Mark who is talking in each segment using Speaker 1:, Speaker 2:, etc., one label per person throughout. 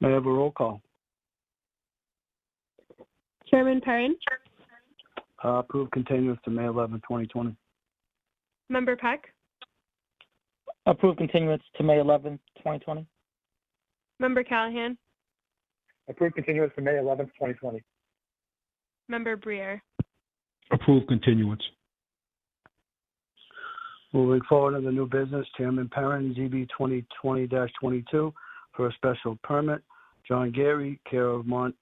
Speaker 1: May I have a roll call?
Speaker 2: Chairman Perrin,
Speaker 1: Uh, Approve continuance to May 11, 2020.
Speaker 2: Member Peck,
Speaker 3: Approve continuance to May 11, 2020.
Speaker 2: Member Callahan,
Speaker 4: Approved continuance for May 11th, 2020.
Speaker 2: Member Brier,
Speaker 5: Approve continuance.
Speaker 1: Moving forward to the new business, Chairman Perrin, ZB 2020-22 for a special permit. John Gary, care of Mont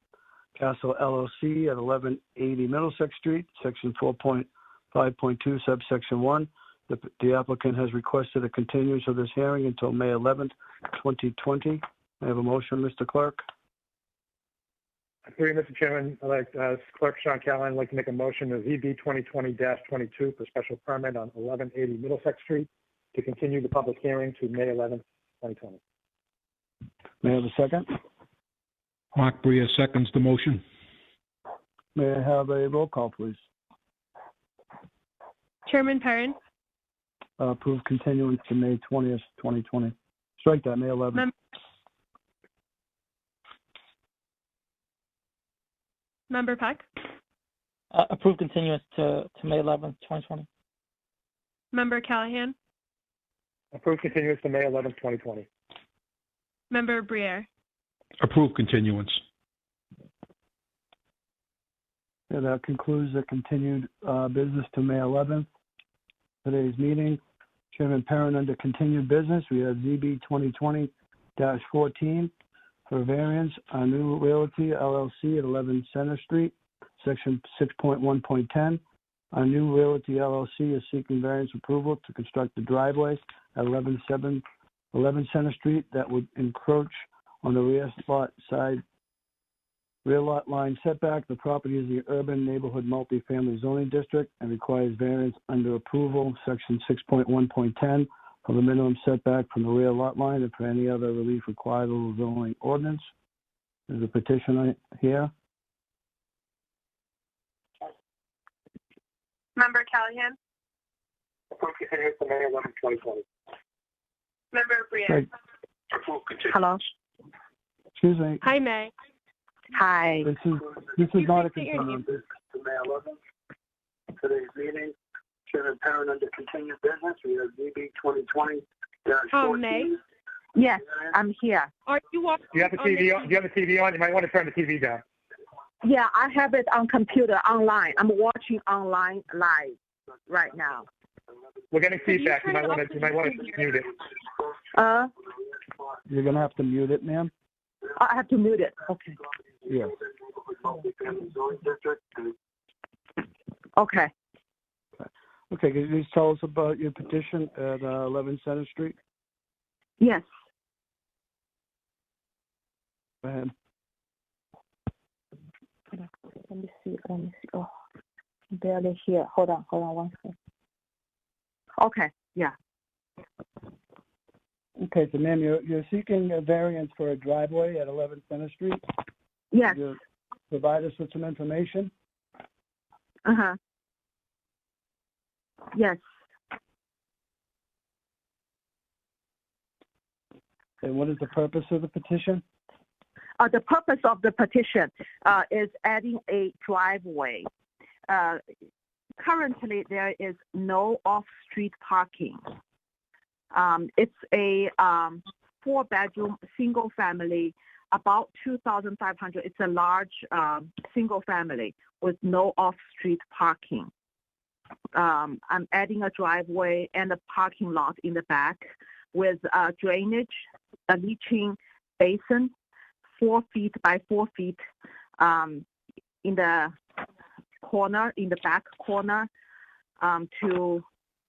Speaker 1: Castle LLC at 1180 Middlesex Street, Section 4.5.2 subsection 1. The the applicant has requested a continuance of this hearing until May 11th, 2020. May I have a motion, Mr. Clerk?
Speaker 4: Through you, Mr. Chairman, I'd like, uh, Clerk Sean Callahan, I'd like to make a motion of ZB 2020-22 for special permit on 1180 Middlesex Street to continue the public hearing to May 11th, 2020.
Speaker 1: May I have a second?
Speaker 5: Mark Breer seconds the motion.
Speaker 1: May I have a roll call, please?
Speaker 2: Chairman Perrin,
Speaker 1: Uh, Approve continuance to May 20th, 2020. Strike that, May 11th.
Speaker 2: Member Peck,
Speaker 3: Uh, Approve continuance to, to May 11, 2020.
Speaker 2: Member Callahan,
Speaker 4: Approved continuance to May 11th, 2020.
Speaker 2: Member Brier,
Speaker 5: Approve continuance.
Speaker 1: Yeah, that uh, concludes the continued uh, business to May 11th. Today's meeting, Chairman Perrin, under continued business, we have ZB 2020-14 for variance on New Realty LLC at 11 Center Street, Section 6.1.10. Our New Realty LLC is seeking variance approval to construct the driveway at 11 7 11 Center Street that would encroach on the rear lot side Rear lot line setback, the property is the urban neighborhood multifamily zoning district and requires variance under approval, section six point one point ten, for the minimum setback from the rear lot line and for any other relief required of the zoning ordinance. There's a petitioner here.
Speaker 2: Member Callahan,
Speaker 4: Approved continuance to May 11th, 2020.
Speaker 2: Member Brier.
Speaker 1: Right. Excuse me,
Speaker 2: Hi, May.
Speaker 6: Hi.
Speaker 1: this is, this is not a
Speaker 2: Excuse me, your name.
Speaker 1: concern. To May eleventh, today's meeting, Chairman Perrin under continued business, we have ZB twenty twenty
Speaker 2: Oh, May?
Speaker 6: Yes, I'm here.
Speaker 2: Are you watching?
Speaker 4: Do you have the TV on? Do you have the TV on? You might want to turn the TV down.
Speaker 6: Yeah, I have it on computer online. I'm watching online live right now.
Speaker 4: We're getting
Speaker 2: you
Speaker 4: feedback. You
Speaker 2: turn
Speaker 4: might
Speaker 2: it
Speaker 4: want
Speaker 2: off
Speaker 4: to, you might want to
Speaker 2: so
Speaker 4: mute it.
Speaker 6: Uh, oh,
Speaker 1: You're gonna have to mute it, ma'am.
Speaker 6: I have to mute it. Okay.
Speaker 1: Yeah.
Speaker 6: Okay.
Speaker 1: Okay, can you just tell us about your petition at uh, 11 Center Street?
Speaker 6: Yes.
Speaker 1: Go ahead.
Speaker 6: Let me see. Let me see. Oh, barely here. Hold on. Hold on one second. Okay.
Speaker 1: Okay, so ma'am, you're, you're seeking a variance for a driveway at 11 Center Street.
Speaker 6: Yes.
Speaker 1: Could you Provide us with some information.
Speaker 6: Uh huh. Yes.
Speaker 1: And what is the purpose of the petition?
Speaker 6: uh, the purpose of the petition uh, is adding a driveway. Uh, currently, there is no off-street parking. Um, it's a um, four-bedroom, single-family, about 2,500. It's a large um, single-family with no off-street parking. Um, I'm adding a driveway and a parking lot in the back with uh, drainage, a leaching basin, four feet by four feet um, in the corner, in the back corner, um, to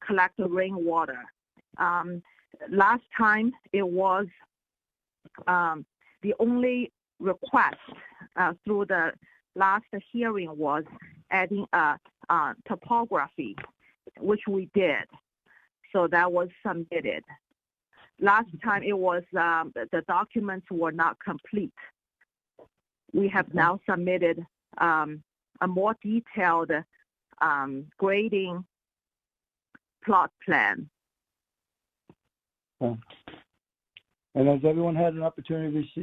Speaker 6: collect the rainwater. Um, last time it was um, the only request uh, through the last hearing was adding a uh, topography, which we did. So that was submitted last time it was um, the, the documents were not complete. We have now submitted um, a more detailed um, grading plot plan.
Speaker 1: And has everyone had an opportunity to receive